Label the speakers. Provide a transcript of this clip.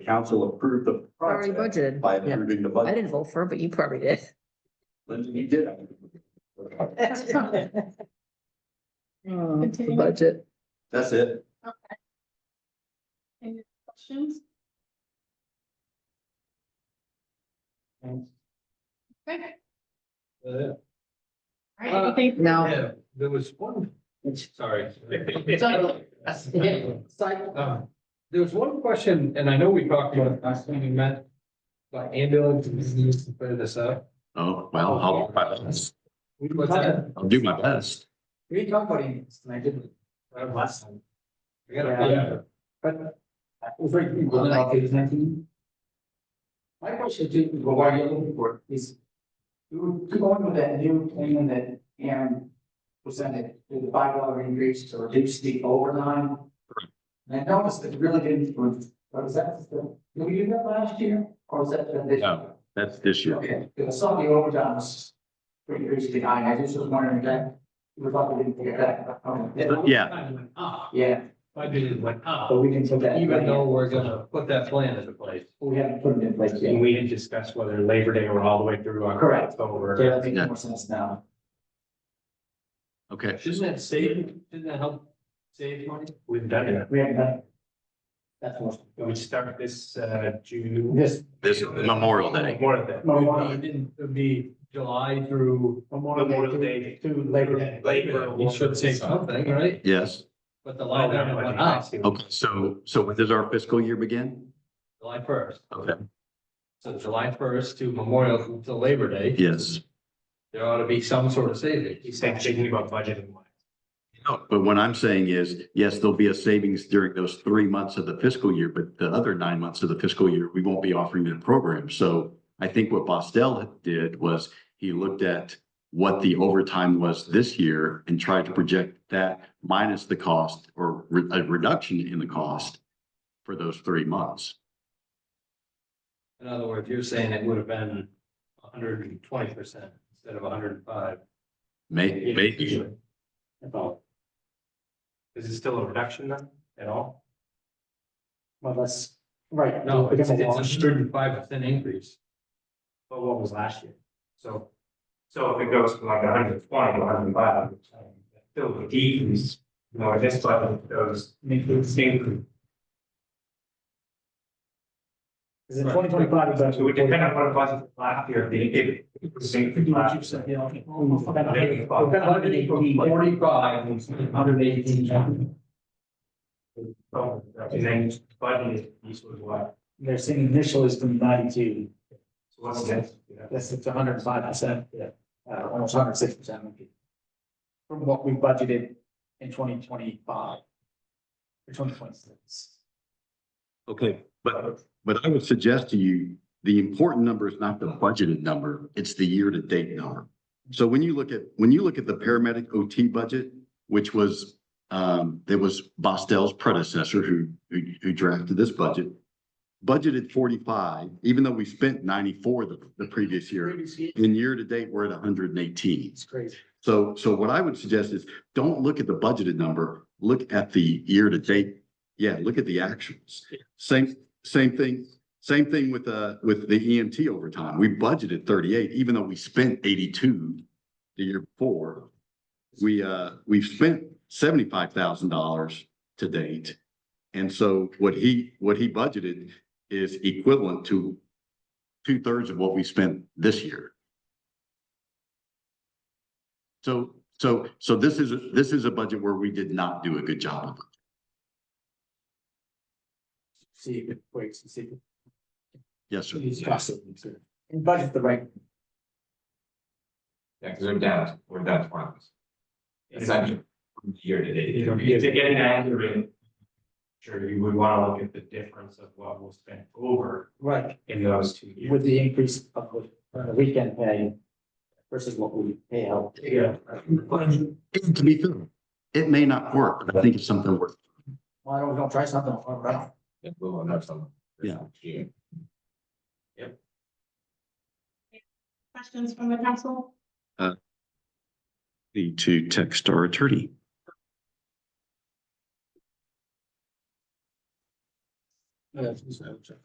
Speaker 1: council approved the
Speaker 2: Already
Speaker 1: project
Speaker 2: budgeted.
Speaker 1: by
Speaker 2: Yeah.
Speaker 1: approving the
Speaker 2: I
Speaker 1: budget.
Speaker 2: didn't vote for, it, but you probably did.
Speaker 1: Lindsay, you did.
Speaker 3: Continue.
Speaker 2: Um, Budget.
Speaker 1: That's it.
Speaker 3: Any questions?
Speaker 4: Thanks.
Speaker 3: Okay,
Speaker 4: Uh,
Speaker 3: all right, anything?
Speaker 2: No,
Speaker 4: yeah, There was one, sorry.
Speaker 3: Sorry.
Speaker 4: Uh,
Speaker 5: Um,
Speaker 4: There was one question, and I know we talked about it last time we met, about ambulance, we need to clear this up.
Speaker 6: Oh, well, I'll, do my best.
Speaker 4: What's that?
Speaker 6: I'll do my best.
Speaker 4: We talked about ambulance, and I didn't, uh, last time. We gotta-
Speaker 5: Yeah.
Speaker 4: But. uh, it was like, well, like, it was nineteen. My question to you, what are you looking for, is. You were going with that new plan that Aaron presented, with the five dollar increase to reduce the overtime. And I noticed it really didn't, was that, the- did we do that last year, or was that the- this?
Speaker 6: No. That's this year.
Speaker 4: Okay, because some of the overtime was pretty crazy behind, I just was wondering if that, we thought we didn't get that.
Speaker 6: But yeah.
Speaker 5: ah,
Speaker 4: Yeah,
Speaker 5: Budget went up,
Speaker 4: but we didn't put that.
Speaker 5: ah, even though we're gonna put that plan into place.
Speaker 4: We haven't put it in place
Speaker 5: And
Speaker 4: yet.
Speaker 5: we had discussed whether Labor Day or all the way through
Speaker 4: Correct.
Speaker 5: October.
Speaker 4: Okay, that makes
Speaker 6: Yeah.
Speaker 4: more sense now.
Speaker 6: Okay.
Speaker 5: Shouldn't that save, shouldn't that help save money? We've done it.
Speaker 4: We haven't done. it. That's what.
Speaker 5: We would start this, uh, June.
Speaker 4: This.
Speaker 6: This is Memorial Day.
Speaker 5: Memorial Day.
Speaker 4: Memorial.
Speaker 5: It would be July through Memorial Day.
Speaker 4: To Labor Day.
Speaker 5: Labor, we should say something, right?
Speaker 6: Yes.
Speaker 5: But the line item went up,
Speaker 6: Okay. So, so when does our fiscal year begin?
Speaker 5: July first.
Speaker 6: Okay.
Speaker 5: So July first to Memorial to Labor Day.
Speaker 6: Yes.
Speaker 5: There ought to be some sort of saving. He's saying thinking about budgeting.
Speaker 6: No, but what I'm saying is, yes, there'll be a savings during those three months of the fiscal year, but the other nine months of the fiscal year, we won't be offering that program. So I think what Bostel did was he looked at what the overtime was this year and tried to project that minus the cost or re- a reduction in the cost for those three months.
Speaker 5: In other words, you're saying it would have been hundred and twenty percent instead of hundred and five.
Speaker 6: May, maybe,
Speaker 5: Is it still a reduction then at all?
Speaker 4: Well, that's, right.
Speaker 5: No, it's
Speaker 4: because
Speaker 5: it's
Speaker 4: of
Speaker 5: a
Speaker 4: law.
Speaker 5: hundred and five percent increase. But what was last year? So. So if it goes from like hundred and twenty to hundred and five, still a decrease, you know, this budget goes, makes it same.
Speaker 4: Is it twenty twenty five?
Speaker 5: So we depend on what it was last year, if it was same.
Speaker 4: Mm.
Speaker 5: Forty-five, hundred and eighteen. So, and then budget is, this was what,
Speaker 4: They're saying initial is from ninety-two,
Speaker 5: so what's next?
Speaker 4: that's it's hundred and five percent, uh, almost hundred and six percent. From what we budgeted in twenty twenty-five. Or twenty twenty-six.
Speaker 6: okay, but, but I would suggest to you, the important number is not the budgeted number, it's the year-to-date number. So when you look at, when you look at the paramedic OT budget, which was, um, that was Bostel's predecessor who, who, who drafted this budget. Budgeted forty-five, even though we spent ninety-four the, the previous year, in year-to-date, we're at hundred and eighteen.
Speaker 4: It's crazy.
Speaker 6: So, so what I would suggest is, don't look at the budgeted number, look at the year to date. Yeah, look at the actuals. Same, same thing, same thing with, uh, with the EMT overtime. We budgeted thirty-eight, even though we spent eighty-two the year before. We, uh, we've spent seventy-five thousand dollars to date. And so what he, what he budgeted is equivalent to two-thirds of what we spent this year. So, so, so this is, this is a budget where we did not do a good job.
Speaker 4: See, if it breaks, see. if
Speaker 6: Yes, sir.
Speaker 4: It's possible to. And budget the right.
Speaker 7: Yeah, because we're down, we're down to one. It's
Speaker 5: Exactly.
Speaker 7: actually year to date.
Speaker 5: To get an accurate. Sure, you would wanna look at the difference of what was spent over
Speaker 4: Right.
Speaker 5: in those two years.
Speaker 4: With the increase of the weekend pay versus what we pay out.
Speaker 5: Yeah.
Speaker 6: And to be fair, it may not work, but I think it's something worth.
Speaker 4: Why don't we don't try something? all right?
Speaker 7: It will end up somewhere.
Speaker 6: Yeah.
Speaker 7: Yeah.
Speaker 3: Questions from the council?
Speaker 6: Need to text our attorney.
Speaker 4: Yeah, so-